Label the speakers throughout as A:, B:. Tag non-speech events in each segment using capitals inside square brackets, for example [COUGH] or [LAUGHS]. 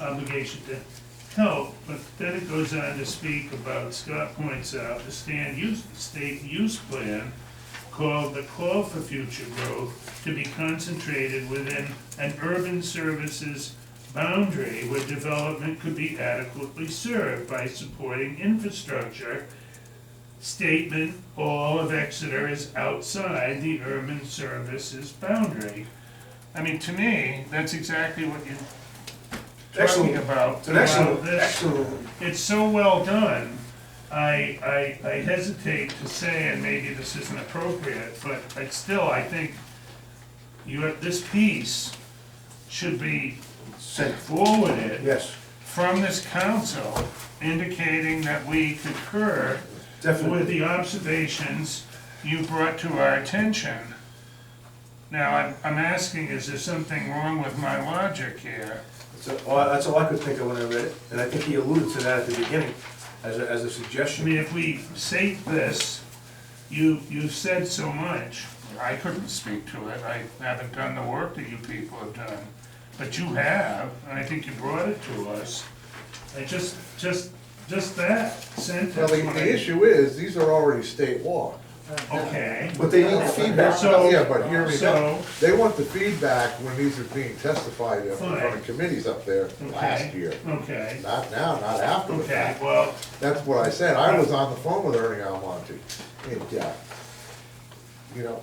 A: obligation to help, but then it goes on to speak about, Scott points out, the stand use, state use plan called the call for future growth to be concentrated within an urban services boundary where development could be adequately served by supporting infrastructure. Statement, all of Exeter is outside the urban services boundary. I mean, to me, that's exactly what you're talking
B: Excellent.
A: about.
B: It's an excellent,
A: throughout this
B: excellent,
A: it's so well done, I, I, I hesitate to say, and maybe this isn't appropriate, but I still, I think you have, this piece should be
B: sentence.
A: forwarded
B: yes,
A: from this council indicating that we concur with
B: definitely.
A: the observations you brought to our attention. Now, I'm, I'm asking, is there something wrong with my logic here?
B: That's all- that's all I could think of when I read it, and I think he alluded to that at the beginning as a, as a
A: I
B: suggestion.
A: mean, if we state this, you, you've said so much. I couldn't speak to it, I haven't done the work that you people have done, but you have, and I think you brought it to us. I just, just, just that sentence.
C: Well, the,
A: when
C: the
A: I-
C: issue is, these are already state law.
A: Okay,
C: But they need feedback.
A: So-
C: Yeah, but hear me
A: so-
C: out. They want the feedback when these are being testified in front
A: Fine.
C: of committees up there last year.
A: okay,
C: Not now, not after the
A: okay,
C: fact.
A: well,
C: That's what I said. I was on the phone with Ernie Almonte. And, uh, you know,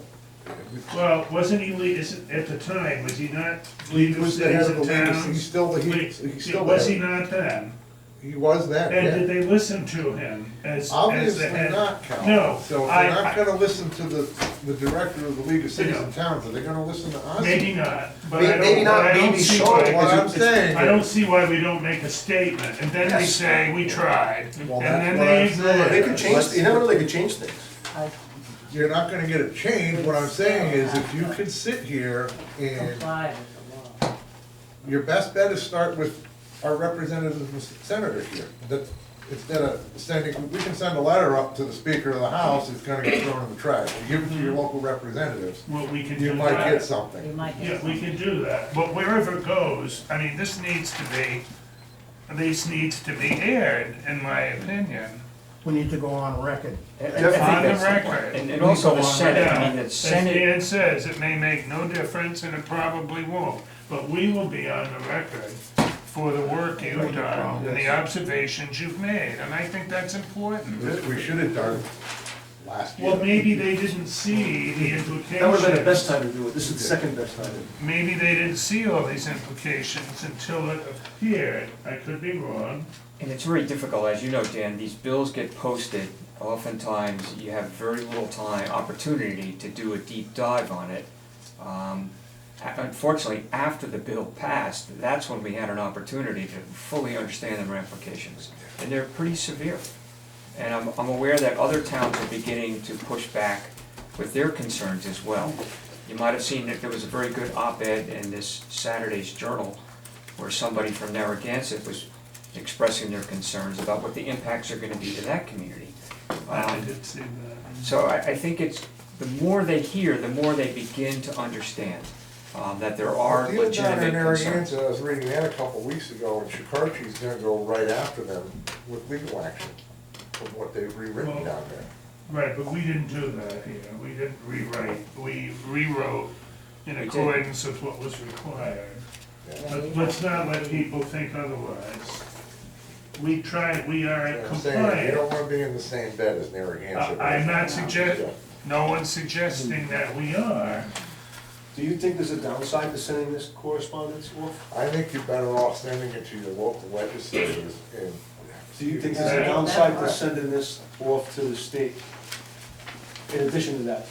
A: well, wasn't he lead, is, it- at the time, was he not
C: he
A: leading
C: was the head
A: cities
C: of the
A: and
C: league, he's
A: towns?
C: still the, he- he's
A: Wait,
C: still
A: Was he
C: there.
A: not then?
C: He was then,
A: And did
C: yeah.
A: they listen to him as, as the
C: Obviously
A: head?
C: not, Cal.
A: No,
C: So if
A: I-
C: they're not
A: I-
C: gonna listen to the, the director of the League of Cities
A: know.
C: and Towns, are they gonna listen to us?
A: Maybe not, but
B: May-
A: I
B: maybe
A: don't,
B: not,
A: but I don't
B: maybe
A: see
B: short,
C: What
A: why,
C: I'm saying.
A: I don't see why we don't make a statement, and then they
B: Yes.
A: say, we tried, and
C: Well, that's
A: then
C: what
A: they
C: I'm saying.
A: ignore
B: They
A: it.
B: could change, you never know, they could change things.
C: You're not gonna get a change, what I'm saying is if you could sit here and
D: comply with the law.
C: your best bet is start with our representatives and senators here. That, instead of sending, we can send a letter up to the speaker of the house, it's gonna get thrown in the trash. You Give it to your local representatives,
A: Well, we could
C: you
A: do
C: might get
A: that,
D: You
C: something.
D: might get
A: yeah, we
D: some.
A: could do that, but wherever it goes, I mean, this needs to be, this needs to be aired, in my opinion.
E: we need to go on record.
F: And-
B: Definitely.
F: I think
A: On the
F: that's point.
A: record.
F: And, and also the Senate, I mean,
A: Yeah,
F: the
A: as
F: Senate,
A: Dan says, it may make no difference, and it probably won't, but we will be on the record for the work you've done, and the observations you've made, and I think that's important.
C: This we should have done last year.
A: Well, maybe they didn't see the
B: That would've been the
A: implications,
B: best time to do it, this is the second best time.
A: maybe they didn't see all these implications until it appeared, I could be wrong.
F: and it's very difficult, as you know, Dan, these bills get posted. Oftentimes, you have very little time, opportunity to do a deep dive on it. Um, a- unfortunately, after the bill passed, that's when we had an opportunity to fully understand the ramifications. And they're pretty severe. And I'm, I'm aware that other towns are beginning to push back with their concerns as well. You might have seen that there was a very good op-ed in this Saturday's Journal where somebody from Narragansett was expressing their concerns about what the impacts are gonna be to that community.
A: I
F: Um,
A: did see that.
F: so I, I think it's, the more they hear, the more they begin to understand, um, that there are
C: Deal down
F: legitimate
C: in
F: concerns.
C: Narragansett, I was reading that a couple weeks ago, and Shikarchi's gonna go right after them with legal action from what they've rewritten down there.
A: Right, but we didn't do that here, we didn't rewrite, we rewrote in
F: did.
A: accordance with what was required.
C: Yeah.
A: But let's not let people think otherwise. We tried, we are
C: I'm saying, you
A: compliant.
C: don't wanna be in the same bed as Narragansett.
A: I- I'm not suggest, no one's suggesting that we are.
B: Do you think there's a downside to sending this correspondence off?
C: I think you're better off sending it to your local legislators and.
B: Do you think there's a
A: Uh,
B: downside to sending this off to the state? In addition to that,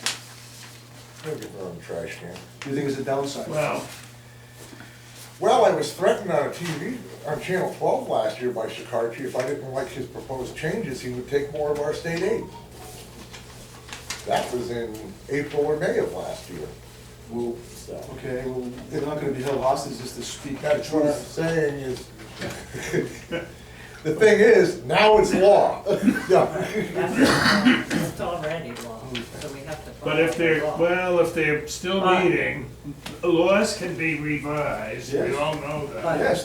C: They'll get their own trash can.
B: do you think there's a downside?
A: Well,
C: Well, I was threatened on TV, on Channel twelve last year by Shikarchi, if I didn't like his proposed changes, he would take more of our state aid. That was in April or May of last year.
B: Well, okay, well, they're not gonna be held hostage just to speak the
C: That's what I'm
B: truth.
C: saying is, [LAUGHS] the thing is, now it's law. [LAUGHS] Yeah.
D: That's the law. It's already law, so we have to follow
A: but if they're,
D: the law.
A: well, if they're still
D: Uh,
A: meeting, laws can be revised, we
C: Yes.
A: all know that.
D: But-
C: Yes,